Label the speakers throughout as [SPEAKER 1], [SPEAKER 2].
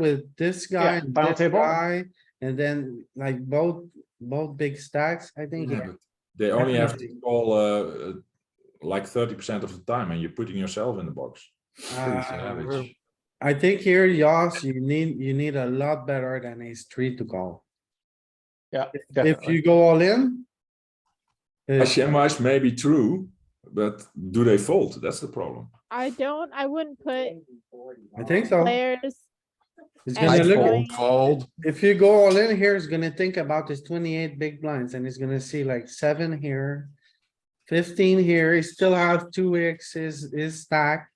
[SPEAKER 1] with this guy
[SPEAKER 2] Yeah,
[SPEAKER 1] and
[SPEAKER 2] final
[SPEAKER 1] this
[SPEAKER 2] table.
[SPEAKER 1] guy, and then like both, both big stacks, I think.
[SPEAKER 3] Yeah,
[SPEAKER 1] yeah.
[SPEAKER 3] but They only have to
[SPEAKER 1] Definitely.
[SPEAKER 3] call uh, uh, like thirty percent of the time, and you're putting yourself in the box. Pretty
[SPEAKER 1] Uh,
[SPEAKER 3] savage.
[SPEAKER 1] I think here, Yoss, you need, you need a lot better than ace three to call.
[SPEAKER 2] Yeah,
[SPEAKER 1] If
[SPEAKER 2] definitely.
[SPEAKER 1] you go all in. uh,
[SPEAKER 3] HMI is maybe true, but do they fold? That's the problem.
[SPEAKER 4] I don't, I wouldn't put
[SPEAKER 1] I think so.
[SPEAKER 4] players,
[SPEAKER 1] It's
[SPEAKER 4] And
[SPEAKER 1] gonna
[SPEAKER 4] I
[SPEAKER 1] look,
[SPEAKER 4] fold.
[SPEAKER 5] Fold, fold.
[SPEAKER 1] if you go all in here, it's gonna think about his twenty-eight big blinds and he's gonna see like seven here. Fifteen here, he still has two X's, his stack.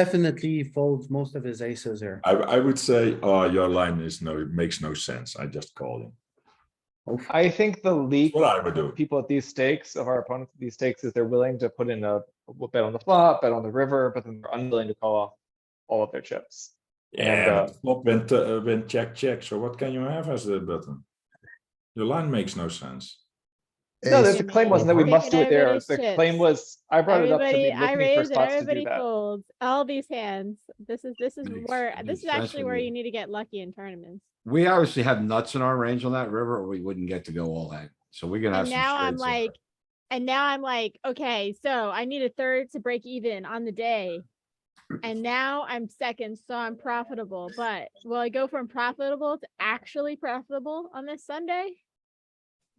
[SPEAKER 1] Definitely he folds most of his aces here.
[SPEAKER 3] I, I would say, uh, your line is no, it makes no sense. I just call him.
[SPEAKER 2] I think the leak.
[SPEAKER 3] What I would do.
[SPEAKER 2] People at these stakes of our opponents, at these stakes is they're willing to put in a a bet on the flop, bet on the river, but then they're unwilling to call off all of their chips. And,
[SPEAKER 3] Yeah,
[SPEAKER 2] uh,
[SPEAKER 3] but flop went, uh, went check, check. So what can you have as the button? Your line makes no sense.
[SPEAKER 2] No,
[SPEAKER 5] Ace
[SPEAKER 2] the the claim wasn't that we
[SPEAKER 4] Everybody-
[SPEAKER 2] must do it there.
[SPEAKER 4] everybody's
[SPEAKER 2] The
[SPEAKER 4] chips.
[SPEAKER 2] claim was, I brought it up to
[SPEAKER 4] everybody,
[SPEAKER 2] be
[SPEAKER 4] I
[SPEAKER 2] looking for
[SPEAKER 4] raised and
[SPEAKER 2] spots to do
[SPEAKER 4] everybody
[SPEAKER 2] that.
[SPEAKER 4] folds, all these hands. This is, this is
[SPEAKER 3] Nice,
[SPEAKER 4] where, this
[SPEAKER 3] nice.
[SPEAKER 4] is
[SPEAKER 5] That's
[SPEAKER 4] actually
[SPEAKER 5] what
[SPEAKER 4] where
[SPEAKER 5] we-
[SPEAKER 4] you need to get lucky in tournaments.
[SPEAKER 5] We obviously have nuts in our range on that river or we wouldn't get to go all in. So we're gonna have
[SPEAKER 4] And
[SPEAKER 5] some.
[SPEAKER 4] now I'm
[SPEAKER 5] straights in there.
[SPEAKER 4] like, and now I'm like, okay, so I need a third to break even on the day. And now I'm second, so I'm profitable, but will I go from profitable to actually profitable on this Sunday?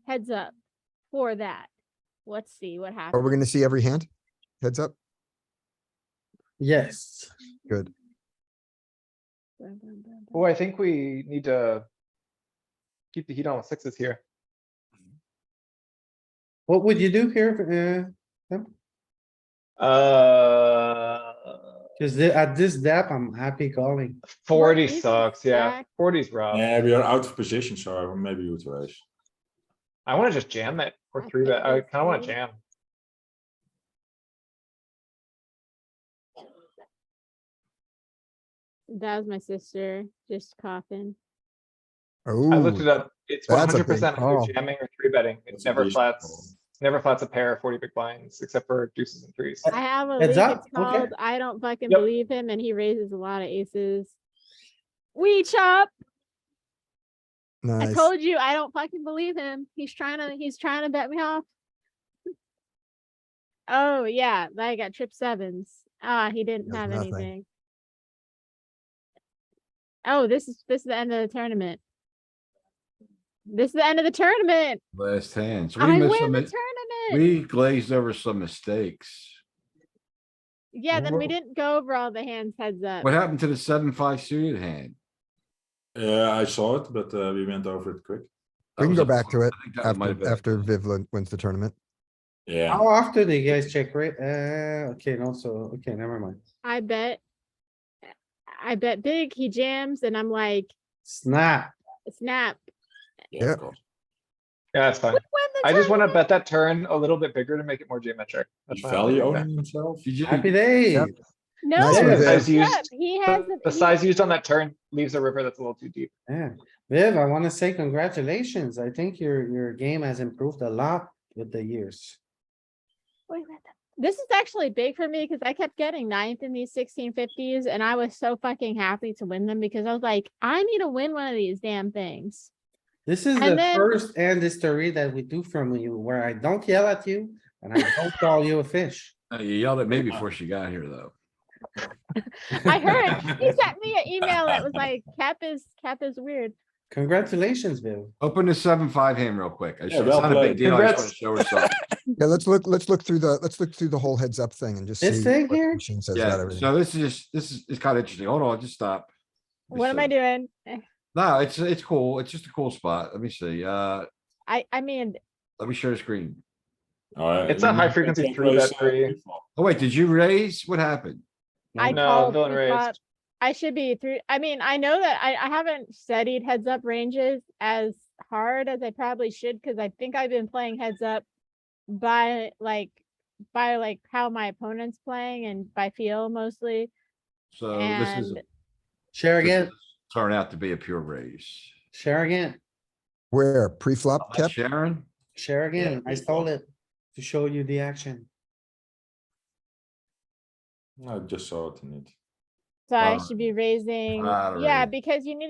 [SPEAKER 4] Heads up for that. Let's see what
[SPEAKER 6] Are
[SPEAKER 4] happens.
[SPEAKER 6] we gonna see every hand? Heads up.
[SPEAKER 1] Yes,
[SPEAKER 4] Bum, bum, bum, bum.
[SPEAKER 2] Oh, I think we need to keep the heat on with sixes here.
[SPEAKER 1] what would you do here? Uh,
[SPEAKER 2] Uh,
[SPEAKER 1] cause the- at this depth, I'm happy calling.
[SPEAKER 2] forty
[SPEAKER 4] is
[SPEAKER 2] sucks, yeah,
[SPEAKER 4] stacked?
[SPEAKER 2] forty's rough.
[SPEAKER 3] Yeah, we are out of position, so maybe you would raise.
[SPEAKER 2] I wanna just jam that, or
[SPEAKER 4] I
[SPEAKER 2] three
[SPEAKER 4] think
[SPEAKER 2] bet, I
[SPEAKER 4] it's
[SPEAKER 2] kinda wanna
[SPEAKER 4] three.
[SPEAKER 2] jam.
[SPEAKER 4] That was my sister just coughing.
[SPEAKER 2] I looked it
[SPEAKER 6] Oh,
[SPEAKER 2] up, it's one
[SPEAKER 6] that's a
[SPEAKER 2] hundred
[SPEAKER 6] big
[SPEAKER 2] percent
[SPEAKER 6] call.
[SPEAKER 2] either jamming or three betting, it
[SPEAKER 3] That's a
[SPEAKER 2] never
[SPEAKER 3] decent
[SPEAKER 2] flats,
[SPEAKER 3] call.
[SPEAKER 2] never flats a pair of forty big blinds, except for deuces and threes.
[SPEAKER 4] I have a league,
[SPEAKER 1] Heads
[SPEAKER 4] it's
[SPEAKER 1] up, okay.
[SPEAKER 4] called, I don't fucking
[SPEAKER 2] Yep.
[SPEAKER 4] believe him and he raises a lot of aces. We chop. I
[SPEAKER 6] nice.
[SPEAKER 4] told you, I don't fucking believe him. He's trying to, he's trying to bet me off. Oh, yeah, I got trip sevens. Ah, he didn't
[SPEAKER 6] Does
[SPEAKER 4] have
[SPEAKER 6] nothing.
[SPEAKER 4] anything. Oh, this is, this is the end of the tournament. This is the end of the tournament.
[SPEAKER 5] Last hand. So we
[SPEAKER 4] I
[SPEAKER 5] missed
[SPEAKER 4] win
[SPEAKER 5] some,
[SPEAKER 4] the
[SPEAKER 5] mi-
[SPEAKER 4] tournament.
[SPEAKER 5] we glazed over some mistakes.
[SPEAKER 4] Yeah, then we
[SPEAKER 5] Whoa.
[SPEAKER 4] didn't go over all the hands heads up.
[SPEAKER 5] What happened to the seven, five suited hand?
[SPEAKER 3] Yeah, I saw it, but uh, we went over it quick.
[SPEAKER 5] That
[SPEAKER 6] We can
[SPEAKER 5] was
[SPEAKER 6] go
[SPEAKER 5] a-
[SPEAKER 6] back to it
[SPEAKER 5] I think that might have
[SPEAKER 6] after,
[SPEAKER 5] been a
[SPEAKER 6] after
[SPEAKER 5] call.
[SPEAKER 6] Viv lin- wins the tournament.
[SPEAKER 3] Yeah.
[SPEAKER 1] How often do you guys check rate? Uh, okay, no, so, okay, never mind.
[SPEAKER 4] I bet. I bet big, he jams and I'm like,
[SPEAKER 1] Snap.
[SPEAKER 4] snap.
[SPEAKER 3] of
[SPEAKER 6] Yeah.
[SPEAKER 3] course.
[SPEAKER 2] Yeah, that's fine.
[SPEAKER 4] We win the
[SPEAKER 2] I just wanna
[SPEAKER 4] tournament.
[SPEAKER 2] bet that turn a little bit bigger to make it more geometric. That's
[SPEAKER 3] He
[SPEAKER 2] why I'm
[SPEAKER 3] value
[SPEAKER 2] doing that.
[SPEAKER 3] owning himself.
[SPEAKER 5] Did you,
[SPEAKER 1] Happy day.
[SPEAKER 6] Yep.
[SPEAKER 4] No,
[SPEAKER 6] Nice
[SPEAKER 1] one,
[SPEAKER 4] heads
[SPEAKER 2] Viv. Size used-
[SPEAKER 4] up, he has.
[SPEAKER 2] The
[SPEAKER 4] a-
[SPEAKER 2] the
[SPEAKER 4] he-
[SPEAKER 2] size used on that turn leaves a river that's a little too deep.
[SPEAKER 1] Yeah, Viv, I wanna say congratulations. I think your, your game has improved a lot with the years.
[SPEAKER 4] wait, what the- This is actually big for me because I kept getting ninth in these sixteen fifties and I was so fucking happy to win them because I was like, I need to win one of these damn things.
[SPEAKER 1] This is
[SPEAKER 4] And
[SPEAKER 1] the
[SPEAKER 4] then-
[SPEAKER 1] first end history that we do from you where I don't yell at you and I don't call you a fish.
[SPEAKER 5] uh, you yelled at me before she got here, though.
[SPEAKER 4] I heard, he sent me an email that was like, Cap is, Cap is weird.
[SPEAKER 1] Congratulations, Viv.
[SPEAKER 5] Open the seven, five hand real quick. I
[SPEAKER 3] Yeah,
[SPEAKER 5] should- It's
[SPEAKER 3] well
[SPEAKER 5] not a
[SPEAKER 3] played.
[SPEAKER 5] big deal. I just wanna
[SPEAKER 2] Congrats.
[SPEAKER 5] show her something.
[SPEAKER 6] Yeah, let's look, let's look through the, let's look through the whole heads up thing and just see.
[SPEAKER 1] This thing
[SPEAKER 6] what
[SPEAKER 1] here?
[SPEAKER 6] the Machine says about
[SPEAKER 5] Yeah,
[SPEAKER 6] everything.
[SPEAKER 5] so this is, just this is, it's kind of interesting. Hold on, just stop. Let me
[SPEAKER 4] What am I
[SPEAKER 5] see.
[SPEAKER 4] doing?
[SPEAKER 5] No, it's, it's cool. It's just a cool spot. Let me see. Uh,
[SPEAKER 4] I, I mean,
[SPEAKER 5] let me share the screen.
[SPEAKER 3] Uh,
[SPEAKER 2] It's a
[SPEAKER 3] you
[SPEAKER 2] high
[SPEAKER 3] can
[SPEAKER 2] frequency
[SPEAKER 3] check
[SPEAKER 2] three
[SPEAKER 3] raise,
[SPEAKER 2] bet
[SPEAKER 3] uh,
[SPEAKER 2] three.
[SPEAKER 3] before.
[SPEAKER 5] Oh, wait, did you raise? What happened?
[SPEAKER 4] I
[SPEAKER 2] No,
[SPEAKER 4] called
[SPEAKER 2] villain
[SPEAKER 4] three flop.
[SPEAKER 2] raised.
[SPEAKER 4] I should be through, I mean, I know that I, I haven't studied heads up ranges as hard as I probably should, because I think I've been playing heads up by like, by like how my opponent's playing and by feel mostly.
[SPEAKER 5] So this is.
[SPEAKER 4] And
[SPEAKER 1] Share
[SPEAKER 5] this
[SPEAKER 1] again,
[SPEAKER 5] is- Turned out to be a pure raise.
[SPEAKER 1] share again,
[SPEAKER 6] Where, pre-flop
[SPEAKER 5] Am I
[SPEAKER 6] kept?
[SPEAKER 5] Sharon,
[SPEAKER 1] share again. I stole it to show you the action.
[SPEAKER 3] I just saw it in it.
[SPEAKER 4] So I
[SPEAKER 5] Uh,
[SPEAKER 4] should be raising,
[SPEAKER 5] I don't
[SPEAKER 4] yeah,
[SPEAKER 2] Ah.
[SPEAKER 5] really-
[SPEAKER 4] because you need to